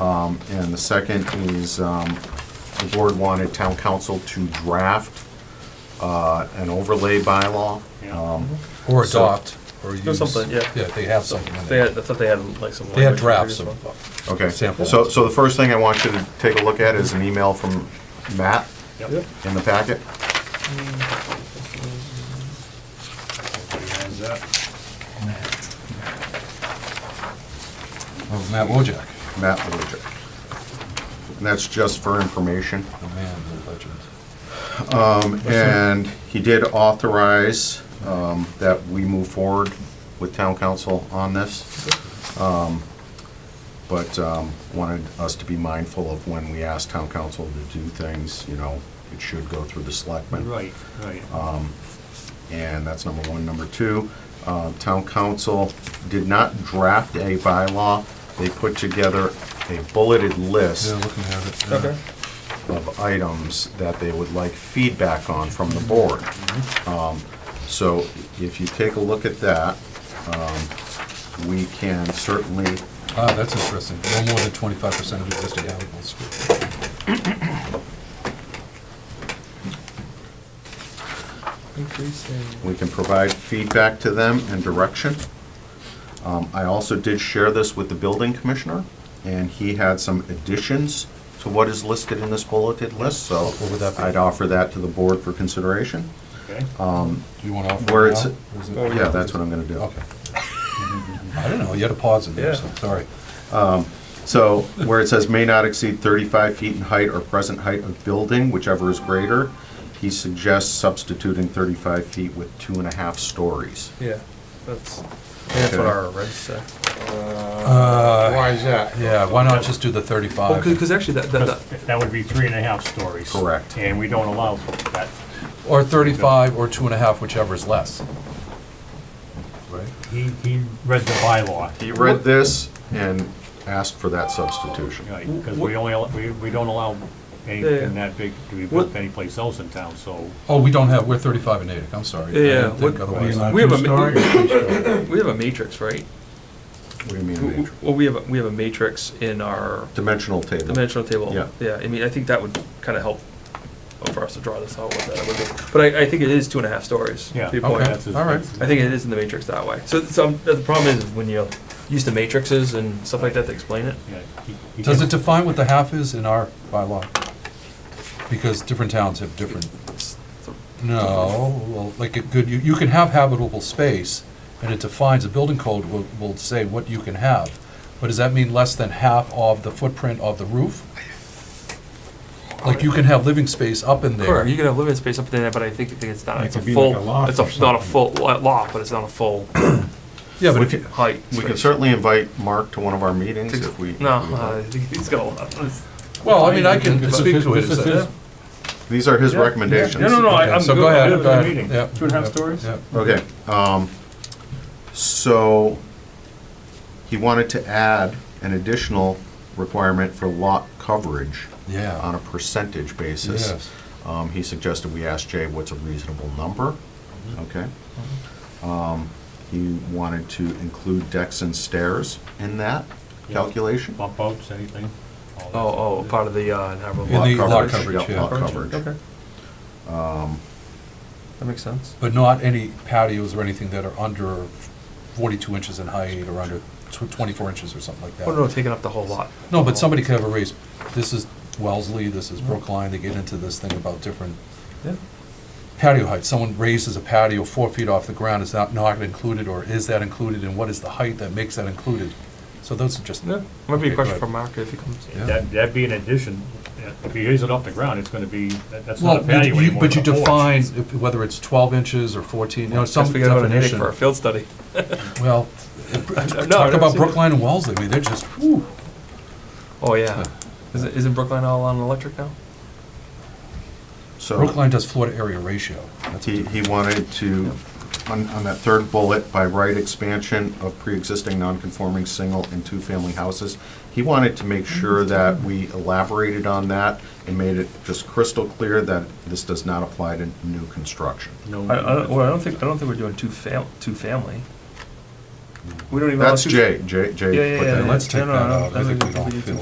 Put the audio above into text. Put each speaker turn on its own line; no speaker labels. Um, And the second is, um, the board wanted town council to draft uh, an overlay bylaw. Um,
Or
So-
adopt, or use.
something, yeah.
Yeah, they have something in
They
there.
had, I thought they had like some.
They had
language
drafts
as well.
of,
Okay,
Sample.
so, so the first thing I want you to take a look at is an email from Matt
Yep.
in the packet.
of Oh, Matt Wojak,
Matt Belichick. And that's just for information.
the man, the legend.
And he did authorize um, that we move forward with town council on this. Um, But um, wanted us to be mindful of when we ask town council to do things, you know, it should go through the selectmen.
Right, right.
Uh,
And that's number one. Number two, uh, town council did not draft a bylaw. They put together a bulleted list
Yeah, looking at it. yeah.
Okay.
of items that they would like feedback on from the board.
Mm-hmm.
Um, So if you take a look at that, um, we can certainly,
Ah, that's interesting. No more than twenty-five percent of existing animals.
we can provide feedback to them and direction. Um, I also did share this with the building commissioner, and he had some additions to what is listed in this bulleted list, so
What would that be?
I'd offer that to the board for consideration.
Okay.
uh, Do you want to offer it now?
Where it's-
Or
Oh,
is it-
Yeah, that's what I'm gonna do.
Okay. I don't know, you had a pause in there,
Yeah.
so, sorry.
So where it says may not exceed 35 feet in height or present height of building, whichever is greater, he suggests substituting 35 feet with two and a half stories.
Yeah, that's, that's what
Okay.
our regs say. Uh,
Why
is that?
Uh, Yeah, why not just do the
Well,
thirty-five?
because Oh, actually that, that, that-
That would be three and a half stories.
Correct.
And we don't allow for that
Or thirty-five, or two and a half, whichever is less. Right?
He, he read the bylaw,
He read this and asked for that substitution.
because we only, al- we, we don't allow
Yeah, yeah.
anything that big to be built
What-
anyplace else in town, so.
Oh, we don't have, we're thirty-five and Natick, I'm sorry. I
Yeah, yeah,
didn't think
what-
otherwise.
we have a, ma- we have a matrix, right?
What do you mean,
W- w-
major?
Well, we have, a- we have a matrix in our
Dimensional table.
dimensional table.
Yeah.
Yeah, I mean, I think that would kind of help for us to draw this out, what that would be. But I, I think it is two and a half stories. to
Yeah.
your point.
Okay,
that's his-
all right.
I think it is in the matrix that way. So, so um, the problem is when you use the matrices and stuff like that to explain it.
yeah, he- he
Does it
didn't-
define what the half is in our bylaw? Because different towns have different, no, well, like a good, you, you can have habitable space, and it defines, a building code will, will say what you can have. But does that mean less than half of the footprint of the roof? Like you can have living space up in
Sure, you
there.
can have living space up there, but I think, I think it's not,
It
it's a
could be like a
full,
loft
it's
or
a, not a
something.
full lo- lot, but it's not a full
Yeah, but
We
if you,
can-
height.
We can
space.
certainly invite Mark to one of our meetings
Six-
if we.
No, uh, he's got a lot. It's-
well, I mean, I can
This is
speak
his-
to it.
this
as
is
that-
his-
These are his recommendations.
No, no, no, I-
Okay,
I'm
So
good.
go ahead,
good
go
with
ahead.
the meeting.
Yeah.
Two and a half stories?
Yeah.
Okay, um, so he wanted to add an additional requirement for lot coverage on
Yeah,
a percentage basis.
yes.
Um, he suggested we ask Jay what's a reasonable number,
Mm-hmm.
okay? Um, he wanted to include decks and stairs in that
Yeah.
calculation.
Bump outs, anything? all that.
Oh, oh, part of the, uh, narrow
In
lot. Um,
the lot coverage,
yeah,
yeah.
Lot coverage.
That makes sense.
But not any patios or anything that are under 42 inches in height or under tw- 24 inches or something like
Oh, no,
that.
taking up the whole lot.
No, but somebody could have a raised, this is Wellesley, this is Brookline, they get into this thing about different
Yeah.
patio heights. Someone raises a patio four feet off the ground, is that not included, or is that included, and what is the height that makes that included? So those are just,
Yeah, might be
Okay,
a question
good.
for Mark if he comes.
Yeah.
That, that'd be an addition, if you raise it off the ground, it's gonna be, that- that's not a
well,
patio
you-
anymore.
but you
it's a porch.
define if- whether it's 12 inches or 14, you know, some
Guess we gotta go to Natick
definition.
for a field study.
Well,
No,
talk
I've
about
seen it.
Brookline and Wellesley, I mean, they're just, whew.
Oh, yeah. Isn't, isn't Brookline all on electric now?
So.
Brookline does floor to area ratio. That's a
He, he wanted to, on, on that third bullet, by right expansion of pre-existing non-conforming single and two-family houses, he wanted to make sure that we elaborated on that and made it just crystal clear that this does not apply to new construction.
No.
I, I, don't- well, I don't think, I don't think we're doing two fam, two family. We don't even. allow
That's
two-
Jay, Jay,
Yeah,
Jay
yeah,
put that
yeah,
in.
let's
no,
take
no,
that
no,
out. I
doesn't-
think we
doesn't
don't
get
feel